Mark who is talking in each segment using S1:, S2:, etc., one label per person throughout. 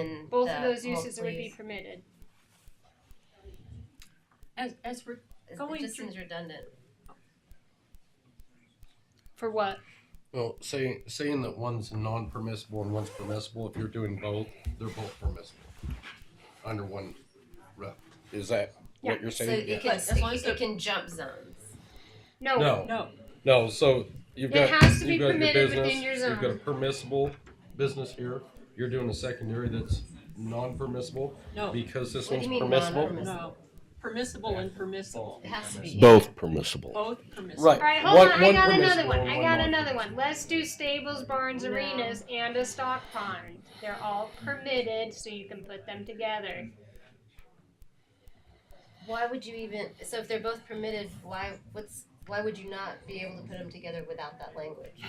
S1: that,
S2: of those uses would be
S1: hopefully.
S2: permitted.
S3: As, as we're,
S1: It's-
S3: Going
S1: It just
S3: through-
S1: seems redundant.
S2: For what?
S4: Well, saying saying that one's non-permissible and one's permissible, if you're doing both, they're both permissible under one rep. Is that
S2: Yeah.
S4: what you're
S1: So
S4: saying?
S1: it can,
S3: As long as
S1: it
S3: they're-
S1: can jump zones.
S2: No.
S4: No.
S3: no,
S4: No, so you've
S2: It
S4: got.
S2: has to be
S4: you've got your
S2: permitted
S4: business,
S2: within your
S4: You've got a
S2: zone.
S4: permissible business here. You're doing a secondary that's non-permissible
S3: no,
S4: because this
S1: What do
S4: one's
S1: you mean
S4: permissible.
S1: non-permissible?
S3: no. Permissible and permissible,
S1: It has to be.
S5: Both permissible.
S3: both permissible.
S4: Right.
S2: All right, hold
S4: One-
S2: on. I
S4: one
S2: got another
S4: permissible
S2: one.
S4: and
S2: I
S4: one
S2: got
S4: not.
S2: another one. Let's do stables, barns,
S3: No.
S2: arenas, and a stock pond. They're all permitted, so you can put them together.
S1: Why would you even, so if they're both permitted, why, what's, why would you not be able to put them together without that language?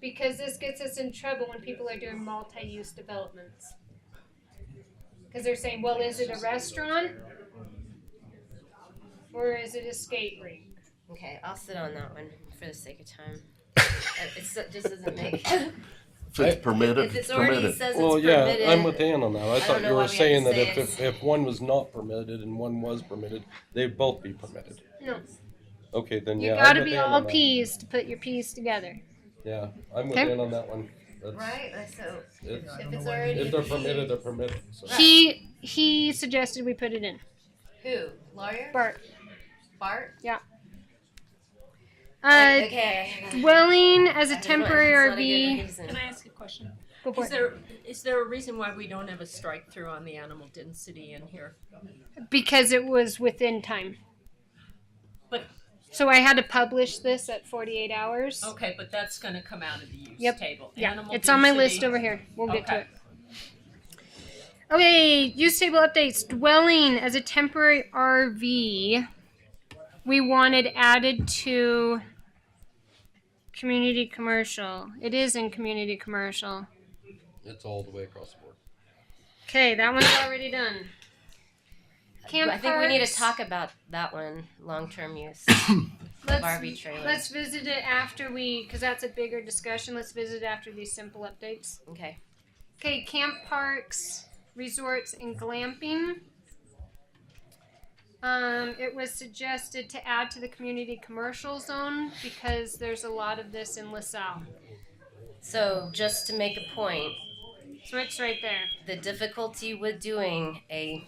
S2: Because this gets us in trouble when people are doing multi use developments. Because they're saying, well, is it a restaurant? Or is it a skate rink?
S1: Okay, I'll sit on that one for the sake of time. Uh, It so- just doesn't make,
S5: If it's permitted,
S1: if
S5: if
S1: it's
S5: it's
S1: already
S5: permitted.
S1: says it's
S4: Well, yeah, I'm with
S1: permitted,
S4: Ann on that. I
S1: don't know
S4: thought you
S1: why we
S4: were
S1: have to
S4: saying that
S1: say
S4: if,
S1: it's-
S4: if, if one was not permitted and one was permitted, they'd both be permitted.
S2: No.
S4: Okay, then
S2: You
S4: yeah. I'm
S2: gotta
S4: with
S2: be
S4: Ann on
S2: all
S4: that.
S2: peas to put your peas together.
S4: Yeah, I'm with
S2: Okay.
S4: Ann on that one. That's,
S1: right? Like, So
S4: it's-
S1: if it's already.
S4: If they're permitted, they're permitted. So.
S2: He he suggested we put it in.
S1: Who, lawyer?
S2: Bart.
S1: Bart?
S2: Uh,
S1: Okay. I gotta-
S2: dwelling as
S1: I
S2: a
S1: just wanna-
S2: temporary RV.
S1: it's not a good reason.
S3: Can I ask a question?
S2: Go for
S3: Is
S2: it.
S3: there, is there a reason why we don't have a strike through on the animal density in here?
S2: Because it was within time.
S3: But-
S2: so I had to publish this at 48 hours.
S3: Okay, but that's gonna come out of the use
S2: Yep.
S3: table.
S2: Yeah,
S3: Animal
S2: it's on my
S3: density-
S2: list over here. We'll get to
S3: Okay.
S2: it. Okay, use table updates. Dwelling as a temporary RV. We wanted added to community commercial. It is in community commercial.
S4: It's all the way across the board.
S2: Okay, that one's already done. Camp
S1: I think we need to
S2: parks.
S1: talk about that one, long-term use,
S2: Let's-
S1: Barbie trailer.
S2: Let's visit it after we, because that's a bigger discussion. Let's visit after these simple updates.
S1: Okay.
S2: Okay, camp parks, resorts, and glamping. Um, it was suggested to add to the community commercial zone because there's a lot of this in LaSalle.
S1: So just to make a point,
S2: So it's right there.
S1: the difficulty with doing a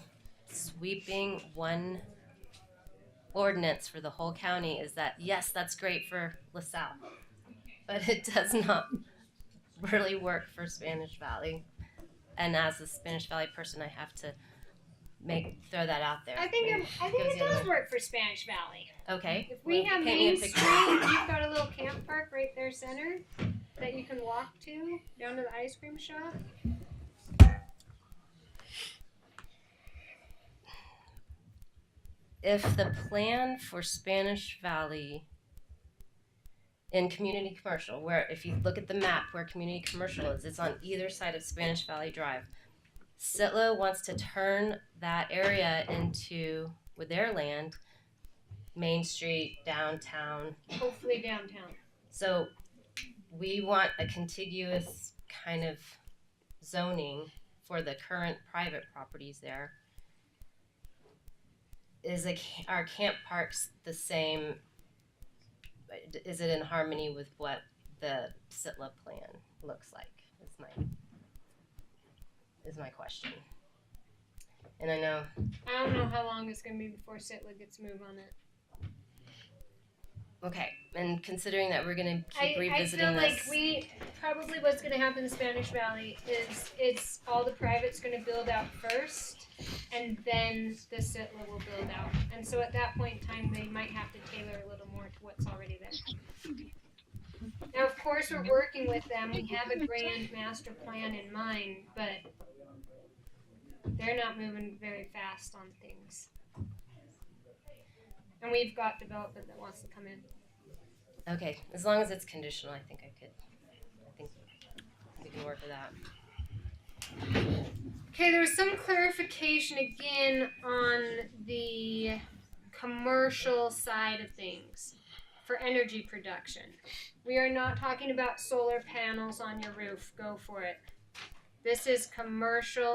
S1: sweeping one ordinance for the whole county is that yes, that's great for LaSalle, but it does not really work for Spanish Valley. And as a Spanish Valley person, I have to make throw that out there.
S2: I think it, I think it does work for Spanish Valley.
S1: okay.
S2: If we
S1: Well,
S2: have
S1: paint me a
S2: Main
S1: picture.
S2: Street, you've got a little camp park right there, center, that you can walk to down to the ice cream shop.
S1: if the plan for Spanish Valley in community commercial, where if you look at the map where community commercial is, it's on either side of Spanish Valley Drive. Sitlo wants to turn that area into, with their land, Main Street, downtown.
S2: Hopefully downtown.
S1: So we want a contiguous kind of zoning for the current private properties there. Is a, ca- are camp parks the same? Is it in harmony with what the Sitla plan looks like? Is my, is my question. And I know
S2: I don't know how long it's gonna be before Sitla gets a move on it.
S1: Okay, and considering that we're gonna keep
S2: I, I
S1: revisiting
S2: feel like
S1: this,
S2: we probably what's going to happen in Spanish Valley is it's all the private's going to build out first, and then the Sitla will build out. And so at that point in time, they might have to tailor a little more to what's already there. Now, of course, we're working with them. We have a grand master plan in mind, but they're not moving very fast on things. And we've got development that wants to come in.
S1: okay, as long as it's conditional, I think I could, I think we can work with that.
S2: Okay, there was some clarification again on the commercial side of things for energy production. We are not talking about solar panels on your roof. Go for it. This is commercial